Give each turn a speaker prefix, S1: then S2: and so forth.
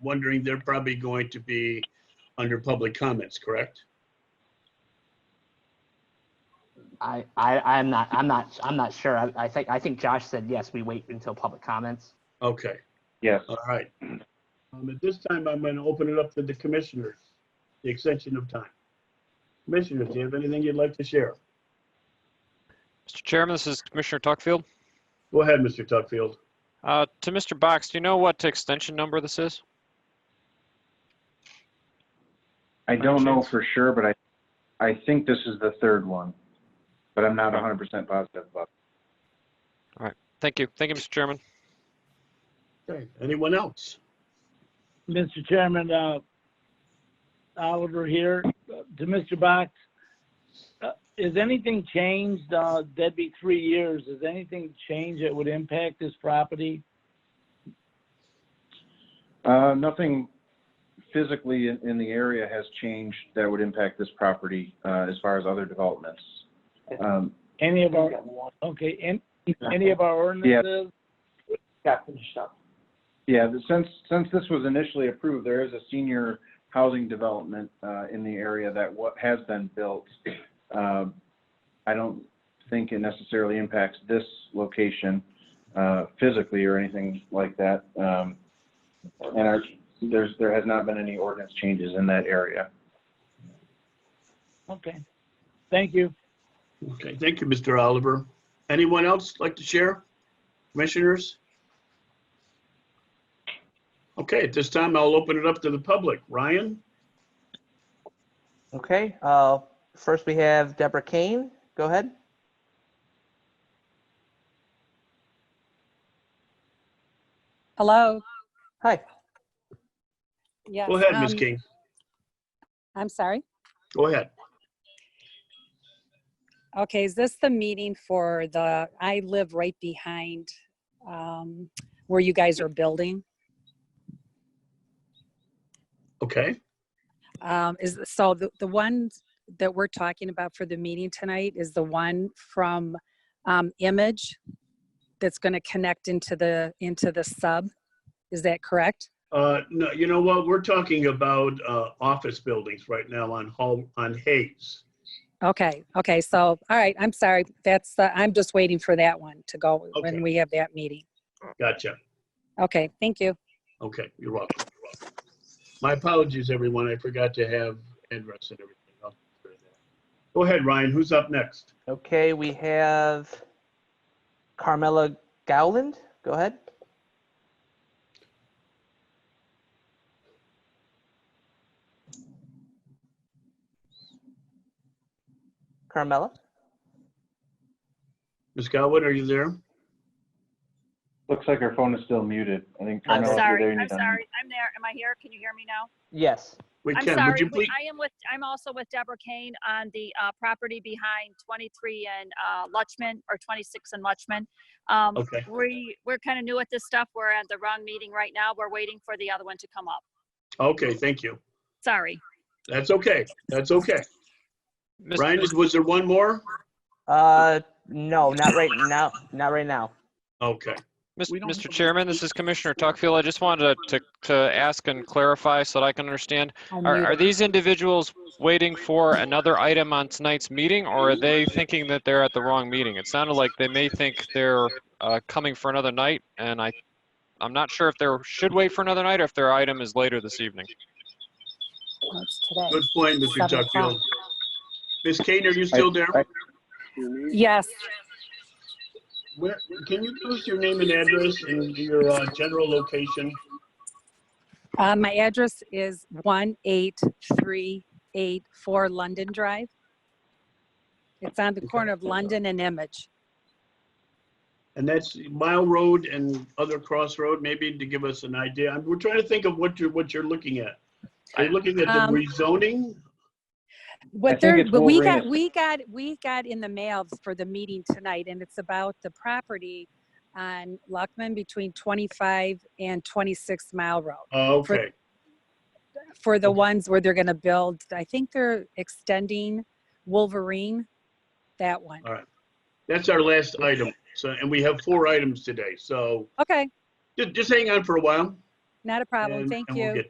S1: wondering, they're probably going to be under public comments, correct?
S2: I, I, I'm not, I'm not, I'm not sure. I, I think, I think Josh said, yes, we wait until public comments.
S1: Okay,
S3: Yes.
S1: all right. Um, At this time, I'm going to open it up to the commissioners, the extension of time. Commissioners, do you have anything you'd like to share?
S4: Mr. Chairman, this is Commissioner Tuckfield.
S1: Go ahead, Mr. Tuckfield.
S4: Uh, To Mr. Box, do you know what extension number this is?
S3: I don't know for sure, but I, I think this is the third one, but I'm not hundred percent positive about.
S4: Thank you. Thank you, Mr. Chairman.
S1: Okay, anyone else?
S5: Mr. Chairman, uh, Oliver here, Uh, to Mr. Box. uh, Has anything changed? uh, That'd be three years. Has anything changed that would impact this property?
S3: it. Uh, nothing physically in, in the area has changed that would impact this property, uh, as far as other developments. Um,
S5: Any of our, okay, an- any of our ordinances?
S3: yeah, the- since, since this was initially approved, there is a senior housing development, uh, in the area that what has been built. Um, I don't think it necessarily impacts this location, uh, physically or anything like that. Um, and our, there's, there has not been any ordinance changes in that area.
S5: Okay, thank you.
S1: Okay, thank you, Mr. Oliver. Anyone else like to share? Commissioners? Okay, at this time, I'll open it up to the public. Ryan?
S6: Okay, uh, first we have Deborah Kane. Go ahead.
S7: Hello?
S6: Hi.
S7: Yes.
S1: Go ahead, Ms.
S7: um,
S1: King.
S7: I'm sorry.
S1: Go ahead.
S7: Okay, is this the meeting for the, I live right behind um, where you guys are building?
S1: Okay,
S7: Um, Is, so the, the one that we're talking about for the meeting tonight is the one from um, Image that's going to connect into the, into the sub? Is that correct?
S1: uh, no, you know what? We're talking about, uh, office buildings right now on Hall, on Hayes.
S7: Okay, okay, so, all right, I'm sorry. That's, the I'm just waiting for that one to go
S1: Okay.
S7: when we have that meeting.
S1: Gotcha.
S7: Okay, thank you.
S1: Okay, you're welcome. You're welcome. My apologies, everyone. I forgot to have address and everything. I'll do that. Go ahead, Ryan. Who's up next?
S6: Okay, we have Carmela Gowland. Go ahead. Carmela?
S1: Ms. Godwin, are you there?
S3: Looks like our phone is still muted. I think.
S6: I'm
S3: Carmel, if you're there, you need
S8: Sorry, I'm
S3: to unmute.
S8: sorry. I'm there. Am I here? Can you hear me now?
S6: Yes.
S1: We
S8: I'm
S1: can, would
S8: sorry.
S1: you
S8: We-
S1: please?
S8: I am with, I'm also with Deborah Kane on the uh, property behind 23 and uh, Lutchman, or 26 and Lutchman. Um,
S1: Okay,
S8: We, we're kind of new at this stuff. We're at the wrong meeting right now. We're waiting for the other one to come up.
S1: okay, thank you.
S8: Sorry.
S1: That's okay. That's okay.
S4: Mr.
S1: Ryan, is- was there one more?
S6: Uh, no, not right now, not right now.
S1: Okay,
S4: Mis-
S1: We don't have a
S4: Mr.
S1: lot
S4: Chairman,
S1: of
S4: this is Commissioner Tuckfield. I just wanted to, to ask and clarify so that I can understand. Are, are these individuals waiting for another item on tonight's meeting or are they thinking that they're at the wrong meeting? It sounded like they may think they're uh, coming for another night and I, I'm not sure if they should wait for another night or if their item is later this evening.
S7: That's today.
S1: good point, Mr.
S7: Seven o'clock.
S1: Tuckfield. Ms. Kane, are you still there?
S3: I-
S7: Yes,
S1: Where, can you give us your name and address and your uh, general location?
S7: uh, my address is 18384 London Drive. It's on the corner of London and Image.
S1: And that's Mile Road and other crossroad, maybe to give us an idea. I'm- We're trying to think of what you're, what you're looking at. Are you looking at
S7: Um,
S1: the rezoning?
S7: What
S3: think
S7: they're,
S3: it's
S7: but we
S3: Wolverine.
S7: got, we got, we got in the mail for the meeting tonight, and it's about the property on Luckman between 25 and 26 Mile Road.
S1: Oh, okay,
S7: For the ones where they're gonna build, I think they're extending Wolverine, that one.
S1: Uh, that's our last item. So, and we have four items today, so
S7: Okay,
S1: ju- just hang on for a while.
S7: Not a problem.
S1: and-
S7: Thank
S1: and we'll
S7: you.
S1: get